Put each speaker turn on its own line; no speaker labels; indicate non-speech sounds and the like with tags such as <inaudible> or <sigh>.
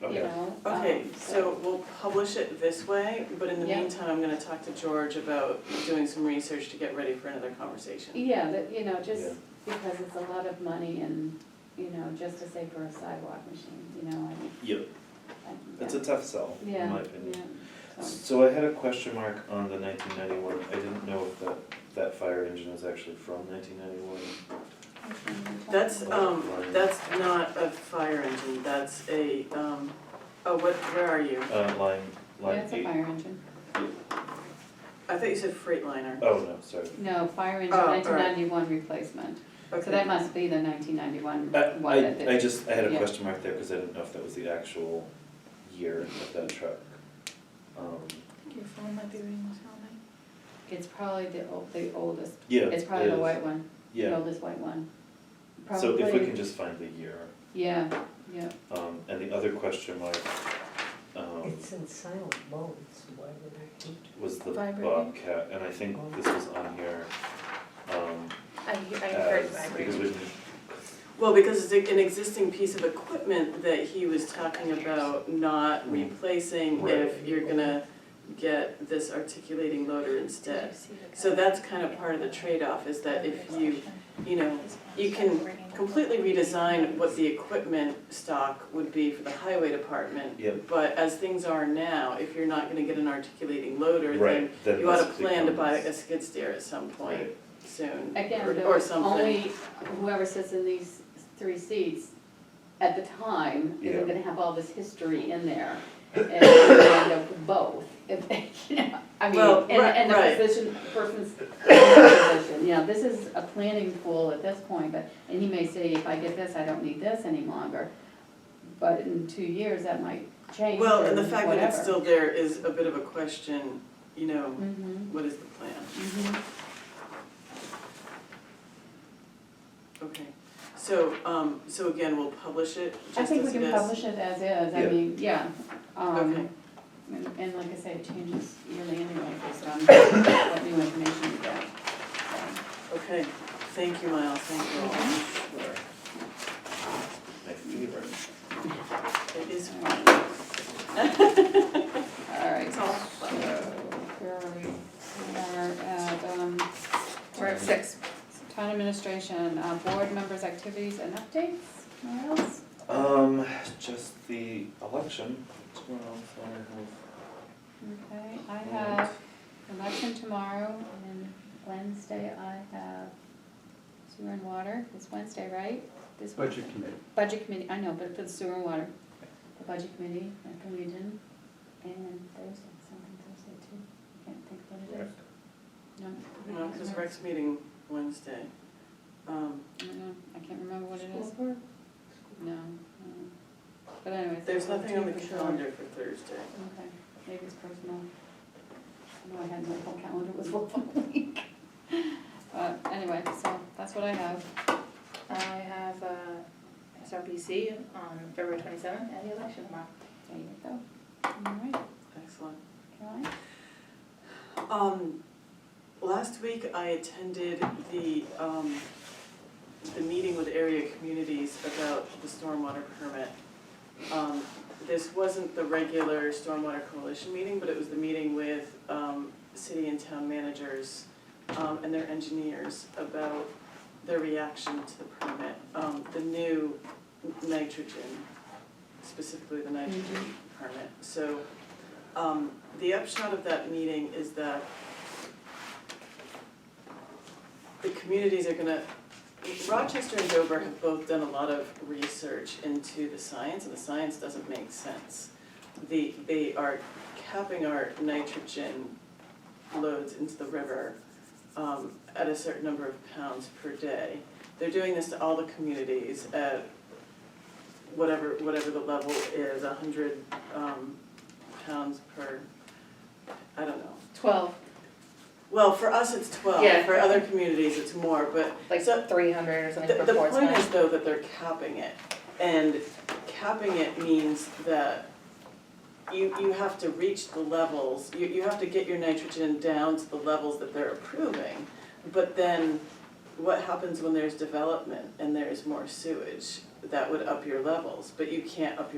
you
Okay.
know? um,
Okay, so we'll publish it this way, but in the
Yeah.
meantime, I'm gonna talk to George about doing some research to get ready for another conversation.
Yeah, that, you know,
Yeah.
just because it's a lot of money and, you know, just to say for a sidewalk machine, you know, I mean.
Yep, that's a tough sell, in my opinion.
Yeah, yeah, so,
So I had a question mark on the nineteen ninety-one, I didn't know if that, that fire engine was actually from nineteen ninety-one.
which one are we talking
That's,
about?
um, that's not a fire engine, that's a, um, oh, what, where are you?
Uh, line,
Yeah,
line
it's a
eight.
fire engine.
I thought you said Freightliner.
Oh, no, sorry.
No, fire engine,
Oh, all right.
nineteen ninety-one replacement. So that
Okay,
must be the nineteen ninety-one
Uh, I,
one that
I, I
they,
just, I had a
yeah.
question mark there, cause I didn't know if that was the actual year of that truck. Um,
think your phone might be ringing or something.
it's probably the old, the oldest.
yeah, it is.
It's probably the white one, the
Yeah,
oldest white one.
so if we
Probably-
can just find the year,
Yeah, yeah,
um, and the other question mark, um,
It's in silent mode, so why would I hate
was the
Vibrating.
Bobcat, and I think this was on here, um,
I hear, I
Uh,
heard
as, because
vibrating.
we,
well, because it's an existing piece of equipment that he was talking about not
Mm.
replacing
Right.
if you're gonna get this articulating loader instead. So that's kind of part of the trade-off, is that if you, you know, you can completely redesign what the equipment stock would be for the highway department.
Yep.
But as things are now, if you're not gonna get an articulating loader, then
right, then
you ought to
this
plan to buy a
becomes-
skid steer at some point
Right.
soon,
again,
or-
the
or something.
only, whoever sits in these three seats at the time,
Yeah.
isn't gonna have all this history in there. And they end up with both, <laughs> if they, you know, I mean,
Well,
and,
right,
and
right.
the position, person's position, you know, this is a planning pool at this point, but, and he may say, if I get this, I don't need this any longer. But in two years, that might change or
Well, and the fact that it's
whatever.
still there is a bit of a question, you know,
Mhm,
what is the plan?
mhm.
Okay, so, um, so again, we'll publish it just
I
as it
think
is?
we can publish it as is, I
Yeah.
mean, yeah. um,
Okay.
And, and like I say, it changes yearly anyway, based on <coughs> what new information we
<laughs>
get. So,
Okay, thank you, Miles, thank you all.
Mm-hmm.
Sure. My favorite.
It is
All right,
It's
so
all fun.
here are we, we are at, um, we're at six. Town administration, uh, board members' activities and updates, what else?
Um, just the election tomorrow, so I have.
Okay, I have election tomorrow and Wednesday I have sewer and water, it's Wednesday, right? This
Budget
Wednesday.
committee.
Budget committee, I know, but for the sewer and water, the budget committee, at the region, and Thursday, something Thursday too, I can't think what it
Rec.
is. No. I
No,
can't
because
remember.
Rex meeting Wednesday. Um,
I don't know, I can't remember what it is. No, no, but anyways.
There's
I'll
nothing on the
do for sure.
calendar for Thursday.
Okay, maybe it's personal. I know I had my whole calendar was <laughs> full for the week. But anyway, so that's what I have.
I have uh, SRPC on February twenty-seventh and the election tomorrow.
There you go. All right,
Excellent.
Caroline?
Um, last week I attended the, um, the meeting with area communities about the stormwater permit. Um, this wasn't the regular stormwater coalition meeting, but it was the meeting with, um, city and town managers, um, and their engineers about their reaction to the permit, um, the new nitrogen, specifically the nitrogen permit. So, um, the upshot of that meeting is that the communities are gonna, Rochester and Dover have both done a lot of research into the science, and the science doesn't make sense. The, they are capping our nitrogen loads into the river, um, at a certain number of pounds per day. They're doing this to all the communities at whatever, whatever the level is, a hundred, um, pounds per, I don't know.
Twelve,
Well, for us, it's twelve,
Yeah.
for other communities, it's more, but
like
So-
three hundred or something
the, the
before it's
point is
done.
though that they're capping it, and capping it means that you, you have to reach the levels, you, you have to get your nitrogen down to the levels that they're approving. But then, what happens when there's development and there's more sewage, that would up your levels, but you can't up your